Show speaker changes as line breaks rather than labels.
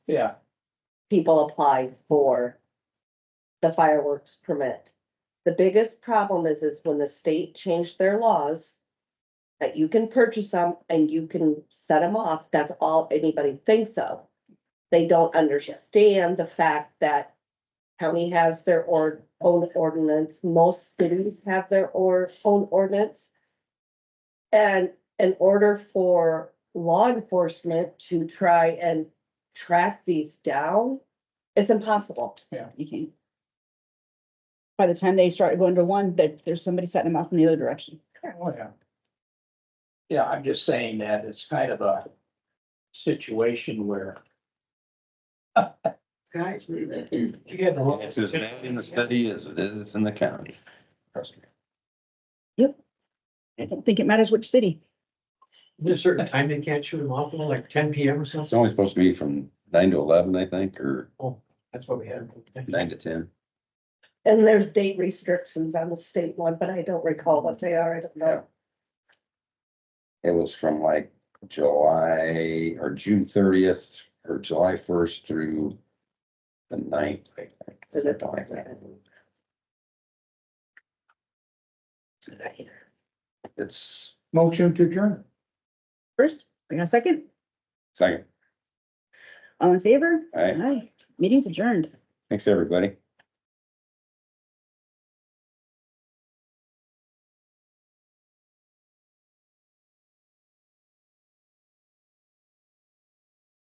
Yeah,
people applied for the fireworks permit. The biggest problem is, is when the state changed their laws that you can purchase them and you can set them off. That's all anybody thinks of. They don't understand the fact that county has their or, own ordinance. Most cities have their or, own ordinance. And in order for law enforcement to try and track these down, it's impossible.
You can't. By the time they start going to one, that there's somebody setting them off in the other direction.
oh, yeah. Yeah, I'm just saying that it's kind of a situation where.
Guys, really.
You get a
It's as bad in the city as it is in the county. Trust me.
I don't think it matters which city.
There's a certain time they can't shoot them off, you know, like ten PM or
It's
something.
only supposed to be from nine to eleven, I think, or
That's what we had.
nine to ten.
And there's date restrictions on the state one, but I don't recall what they are. I don't know.
It was from like July or June thirtieth or July first through the ninth, I think.
Is it-
something like that. It's
Motion to adjourn.
First, we got a second,
second.
all in favor?
All right,
Aye, meeting's adjourned.
thanks, everybody.